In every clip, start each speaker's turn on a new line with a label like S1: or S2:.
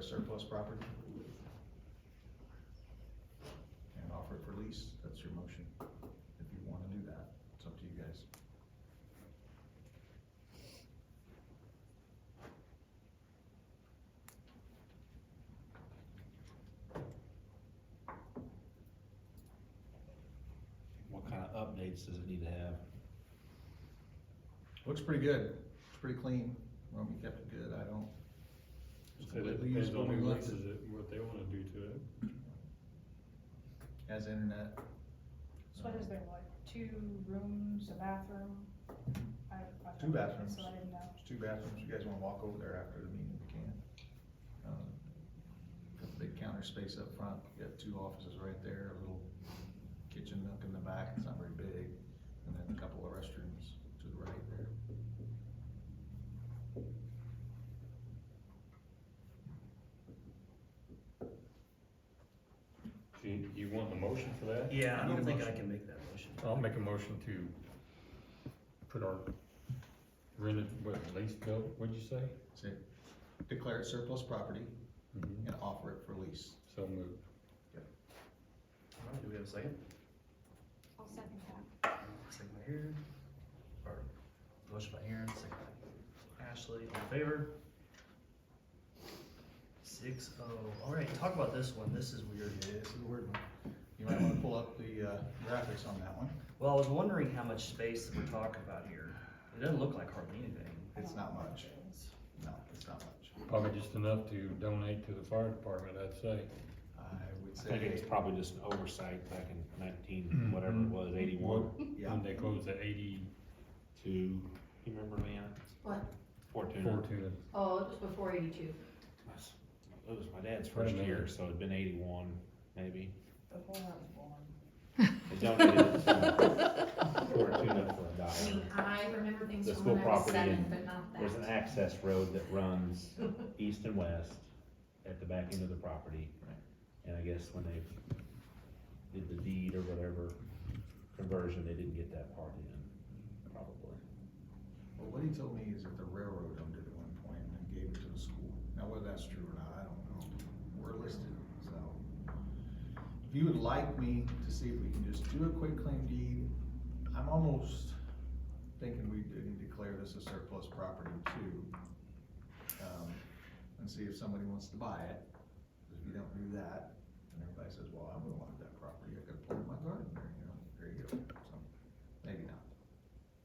S1: surplus property. And offer it for lease, that's your motion, if you wanna do that, it's up to you guys.
S2: What kind of updates does it need to have?
S1: Looks pretty good, it's pretty clean, well, we kept it good, I don't,
S3: It said it
S1: Completely
S3: depends
S1: usable
S3: on
S1: and
S3: who
S1: left
S3: leases it, and what they wanna do to it.
S1: has internet.
S4: So what is there, what, two rooms, a bathroom? I- I've
S1: Two
S4: never been,
S1: bathrooms.
S4: So I didn't know.
S1: There's two bathrooms, you guys wanna walk over there after the meeting, we can. Um, Got the big counter space up front, you got two offices right there, a little kitchen nook in the back, it's not very big, and then a couple of restrooms to the right there.
S3: Do you, you want a motion for that?
S5: Yeah, I
S1: Need a
S5: don't think I
S1: motion.
S5: can make that motion.
S3: I'll make a motion to put our rented, what, lease bill, what'd you say?
S1: Say, declare it surplus property
S3: Mm-hmm.
S1: and offer it for lease.
S3: So moved.
S5: All right, Do we have a second?
S4: I'll second that.
S5: Second by Aaron, or motion by Aaron, second by Ashley, all in favor? Six oh, all right, talk about this one, this is weird.
S1: Yeah, this is a weird one. You might wanna pull up the, uh, graphics on that one.
S5: Well, I was wondering how much space we're talking about here. It doesn't look like hardly anything.
S1: It's not much. No, it's not much.
S3: Probably just enough to donate to the fire department, I'd say.
S1: I would
S2: I think
S1: say,
S2: it's probably just an oversight back in
S3: Mm-hmm.
S2: nineteen, whatever it was, eighty-one,
S1: yeah,
S3: When they closed at eighty,
S2: to, you remember, Leanna?
S6: What?
S2: Fortuna.
S3: four to,
S6: Oh, it was before eighty-two.
S2: That's- It was my dad's
S3: Wait a
S2: first
S3: minute.
S2: year, so it'd been eighty-one, maybe.
S4: The whole house born.
S2: They donated it to Fortuna for a
S6: I mean,
S2: dollar.
S6: I remember things
S2: The
S6: from
S2: school
S6: when I was
S2: property
S6: seven,
S2: and
S6: but not that.
S2: There's an access road that runs east and west at the back end of the property.
S1: Right.
S2: And I guess when they did the deed or whatever conversion, they didn't get that part in, probably.
S1: Well, what he told me is that the railroad owned it at one point and then gave it to the school. Now, whether that's true or not, I don't know. We're listed, so. If you would like me to see if we can just do a quick claim deed, I'm almost thinking we didn't declare this a surplus property too. Um, And see if somebody wants to buy it. If you don't do that, and everybody says, well, I'm gonna want that property, I could plant my garden there, you know, there you go. So, Maybe not.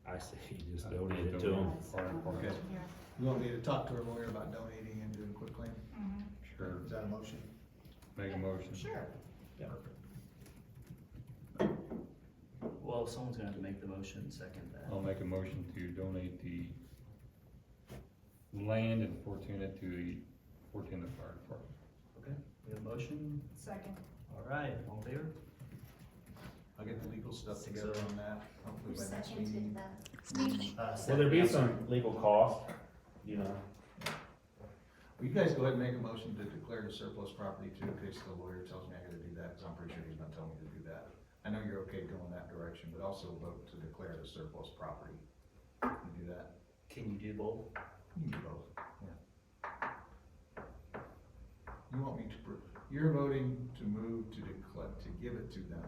S2: I say you just
S3: Uh,
S2: donate it to
S3: donate.
S2: them.
S6: That's-
S3: Fire department.
S6: Yeah.
S1: You want me to talk to our lawyer about donating and doing a quick claim?
S3: Sure.
S1: Is that a motion?
S3: make a motion.
S4: Mm-hmm. Sure.
S2: Yeah.
S5: Well, someone's gonna have to make the motion, second that.
S3: I'll make a motion to donate the land in Fortuna to the Fortuna Fire Department.
S5: Okay, we have a motion,
S4: Second.
S5: all right, all in favor?
S1: I'll get the legal stuff together on that, hopefully by next meeting.
S5: Uh,
S2: Will
S5: second,
S2: there be
S5: I'm sorry.
S2: some legal cost, you know?
S1: Will you guys go ahead and make a motion to declare the surplus property too, in case the lawyer tells me I gotta do that, cause I'm pretty sure he's not telling me to do that. I know you're okay going that direction, but also vote to declare the surplus property. You do that,
S5: Can you do both?
S1: you can do both, yeah. You want me to, pr- you're voting to move to declare, to give it to them,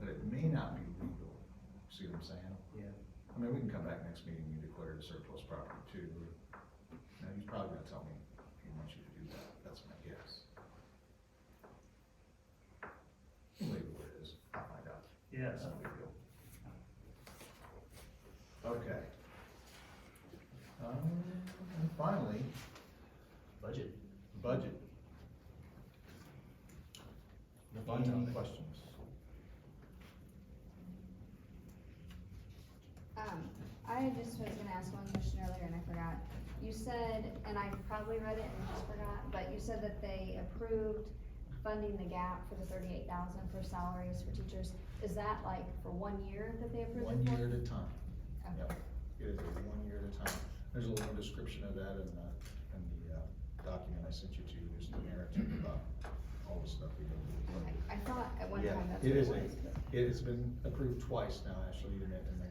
S1: but it may not be legal, see what I'm saying?
S5: Yeah.
S1: I mean, we can come back next meeting, you declare it a surplus property too. Now, he's probably gonna tell me he wants you to do that, that's my guess. Leave it where it is, oh my god,
S5: Yeah,
S1: that's
S5: so
S1: not a big deal. Okay. Um, and finally,
S5: budget.
S1: budget.
S5: The fun
S1: Any
S5: topic.
S1: questions?
S7: Um, I just was gonna ask one question earlier and I forgot. You said, and I probably read it and just forgot, but you said that they approved funding the gap for the thirty-eight thousand for salaries for teachers. Is that like for one year that they approved it for?
S1: One year at a time.
S7: Okay.
S1: Yep, it is a one year at a time. There's a little description of that in the, in the, uh, document I sent you to, there's the narrative about all the stuff we go through.
S7: Okay. I thought at one
S1: Yeah,
S7: time that's
S1: it
S7: what it
S1: is a-
S7: was. but-
S1: It has been approved twice now, actually, and they're